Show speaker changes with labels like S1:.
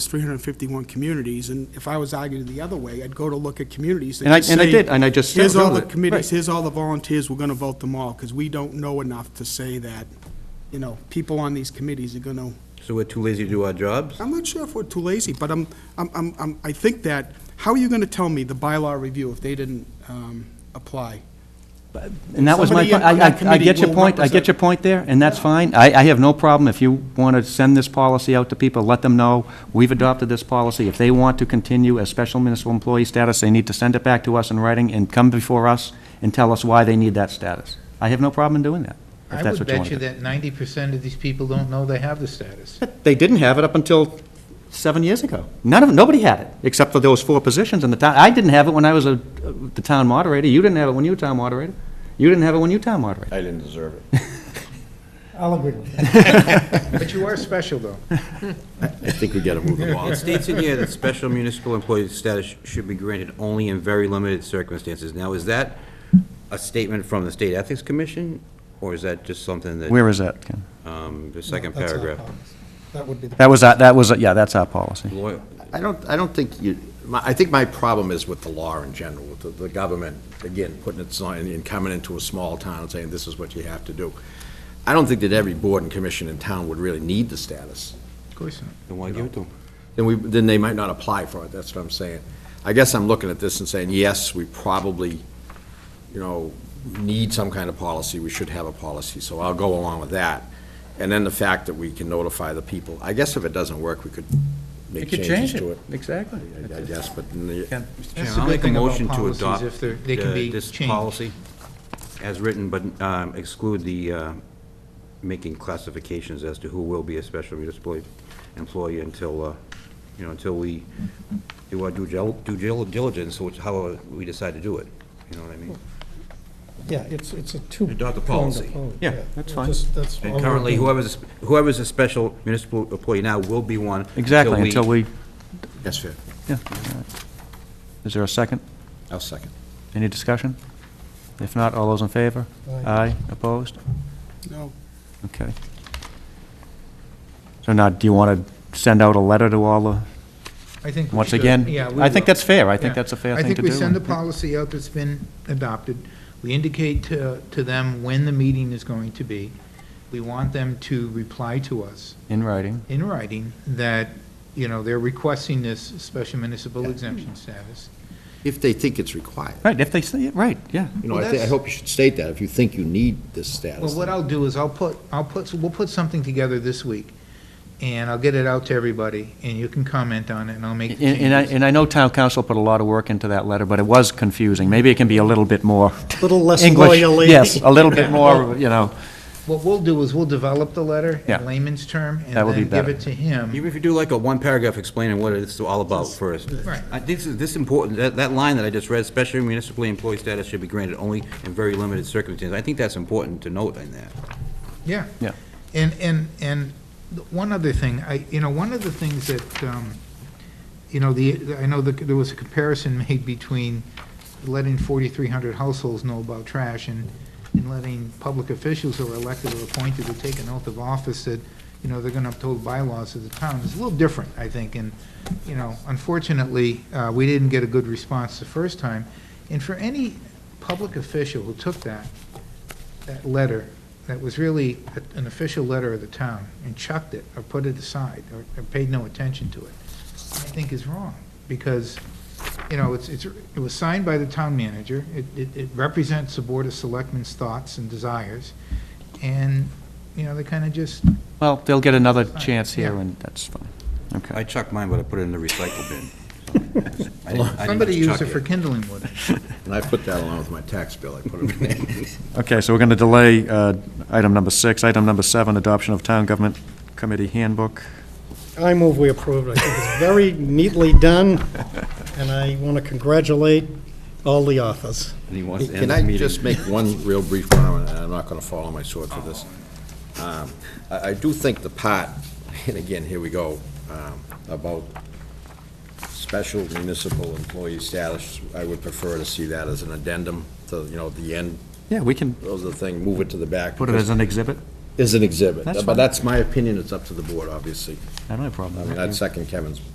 S1: It's 351 communities, and if I was arguing the other way, I'd go to look at communities that
S2: And I-
S1: just
S2: and I
S1: say,
S2: did, and I just
S1: Here's all
S2: found
S1: the
S2: it."
S1: committees,
S2: Right.
S1: here's all the volunteers, we're gonna vote them all, because we don't know enough to say that, you know, people on these committees are gonna
S3: So we're too lazy to do our jobs?
S1: I'm not sure if we're too lazy, but I'm, I'm, I'm, I'm- I think that, how are you gonna tell me the bylaw review if they didn't, um, apply?
S2: And that was my,
S1: Somebody
S2: point.
S1: in- on
S2: I,
S1: that
S2: I- I get
S1: committee
S2: your
S1: will
S2: point, I get
S1: represent-
S2: your point there, and that's fine. I, I have no problem if you want to send this policy out to people, let them know, we've adopted this policy. If they want to continue as special municipal employee status, they need to send it back to us in writing and come before us and tell us why they need that status. I have no problem in doing that, if
S4: I
S2: that's what
S4: would
S2: you
S4: bet
S2: want to
S4: you
S2: do.
S4: that ninety percent of these people don't know they have the status.
S2: They didn't have it up until seven years ago. None of, nobody had it, except for those four positions in the town. I didn't have it when I was a, the town moderator, you didn't have it when you were town moderator, you didn't have it when you were town moderator.
S3: I didn't deserve it.
S5: I'll agree with that.
S4: But you are special, though.
S3: I think we gotta move along. It states in here that special municipal employee status should be granted only in very limited circumstances. Now, is that a statement from the State Ethics Commission, or is that just something that,
S2: Where is that, Ken?
S3: um, the second
S5: That's our
S3: paragraph?
S5: policy. That would be the.
S2: That was, our- that was, yeah, that's our policy.
S3: Lawyer-
S6: I don't, I don't think you, my- I think my problem is with the law in general, with the- the government, again, putting its sign and coming into a small town and saying, this is what you have to do. I don't think that every board and commission in town would really need the status.
S4: Of course not.
S3: Then why give it to 'em?
S6: Then we, then they might not apply for it, that's what I'm saying. I guess I'm looking at this and saying, yes, we probably, you know, need some kind of policy, we should have a policy, so I'll go along with that. And then the fact that we can notify the people, I guess if it doesn't work, we could make changes to it.
S2: exactly.
S6: I I guess, but in the-
S3: Mr.
S4: That's
S3: Chairman,
S4: the
S3: I'll
S4: good
S3: make a
S4: thing about
S3: motion to
S4: policies,
S3: adopt
S4: if they're- they can
S3: uh,
S4: be
S3: this
S4: changed.
S3: policy as written, but um, exclude the, uh, making classifications as to who will be a special municipal employee until, uh, you know, until we do our due gil- due gil- diligence, which, how we decide to do it, you know what I mean?
S5: Yeah, it's, it's a two.
S3: Adopt the policy.
S2: Yeah, that's fine.
S5: Just- that's all
S3: And
S5: we're
S3: currently,
S5: doing.
S3: whoever's, whoever's a special municipal employee now will be one.
S2: Exactly, until we,
S6: Yes, fair.
S2: yeah. Is there a second?
S6: I'll second.
S2: Any discussion? If not, all those in favor?
S5: Aye.
S2: Aye, opposed?
S1: No,
S2: Okay. So now, do you want to send out a letter to all the,
S4: I think. we
S2: once
S4: should.
S2: again?
S4: Yeah, we
S2: I think
S4: will.
S2: that's fair, I think
S4: Yeah.
S2: that's a fair thing to do.
S4: I think we send the policy out that's been adopted. We indicate to, to them when the meeting is going to be. We want them to reply to us
S2: In writing,
S4: in writing that, you know, they're requesting this special municipal exemption status.
S6: If they think it's required.
S2: right, if they say, it, right, yeah.
S6: You know,
S4: Well,
S6: I thi- I
S4: that's-
S6: hope you should state that, if you think you need this status.
S4: Well, what I'll do is I'll put, I'll put, we'll put something together this week, and I'll get it out to everybody, and you can comment on it, and I'll make
S2: And-
S4: the changes.
S2: And I, and I know town council put a lot of work into that letter, but it was confusing, maybe it can be a little bit more
S5: Little less
S2: English.
S5: lawyerly.
S2: Yes, a little bit more, you know.
S4: What we'll do is we'll develop the letter
S2: Yeah.
S4: in layman's term, and
S2: That would be
S4: then give
S2: better.
S4: it to him.
S3: Even if you do like a one paragraph explaining what it's all about first.
S4: Right.
S3: I- This is, this important, that, that line that I just read, special municipally employee status should be granted only in very limited circumstances. I think that's important to note in that.
S4: Yeah.
S2: Yeah.
S4: And, and, and the- one other thing, I, you know, one of the things that, um, you know, the, I know that there was a comparison made between letting 4,300 households know about trash and, and letting public officials who are elected or appointed to take an oath of office that, you know, they're going to uphold bylaws of the town. It's a little different, I think, and, you know, unfortunately, uh, we didn't get a good response the first time. And for any public official who took that, that letter, that was really a- an official letter of the town, and chucked it, or put it aside, or or paid no attention to it, I think is wrong, because, you know, it's, it's, it was signed by the town manager, it, it it represents the Board of Selectmen's thoughts and desires, and, you know, they kind of just,
S2: Well, they'll get another chance here,
S4: Yeah.
S2: and that's fine.
S3: I
S2: Okay.
S3: chucked mine, but I put it in the recycle bin. so I didn't- I didn't
S4: somebody used
S3: chuck
S4: it for kindling wood.
S6: And I put that along with my tax bill, I put it in.
S2: Okay, so we're going to delay uh, item number six. Item number seven, adoption of town government committee handbook.
S5: I move we approve it. I think it's very neatly done, and I want to congratulate all the authors.
S3: And he wants to end
S6: Can
S3: the
S6: I
S3: meeting.
S6: just make one real brief comment, and I'm not going to fall on my sword for this? Um, I, I do think the part, and again, here we go, um, about special municipal employee status, I would prefer to see that as an addendum to, you know, the end,
S2: Yeah, we can
S6: those are the thing, move it to the back.
S2: put it as an exhibit.
S6: As an exhibit.
S2: That's fine.
S6: But that's my opinion, it's up to the board, obviously.
S2: I don't have a problem
S6: I
S2: with
S6: mean,
S2: that.
S6: I'd second Kevin's